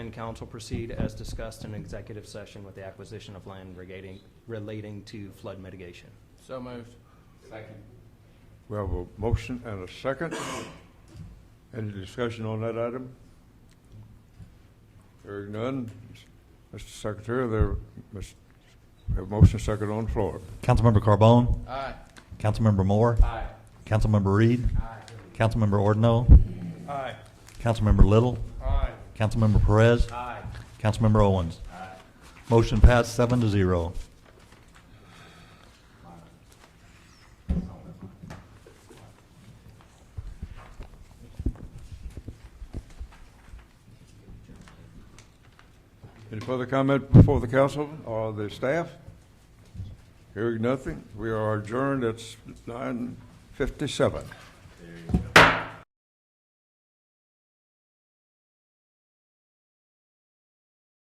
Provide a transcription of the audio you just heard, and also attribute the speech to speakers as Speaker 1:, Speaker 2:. Speaker 1: And council proceed as discussed in executive session with the acquisition of land relating, relating to flood mitigation.
Speaker 2: So moved.
Speaker 3: We have a motion and a second. Any discussion on that item? Hearing none. Mr. Secretary, there, Ms- we have a motion and second on the floor.
Speaker 4: Councilmember Carbone,
Speaker 2: Aye.
Speaker 4: Councilmember Moore,
Speaker 2: Aye.
Speaker 4: Councilmember Reed, Councilmember Ordino,
Speaker 2: Aye.
Speaker 4: Councilmember Little,
Speaker 2: Aye.
Speaker 4: Councilmember Perez,
Speaker 2: Aye.
Speaker 4: Councilmember Owens. Motion passed seven to zero.
Speaker 3: Any further comment before the council or the staff? Hearing nothing. We are adjourned at nine fifty-seven.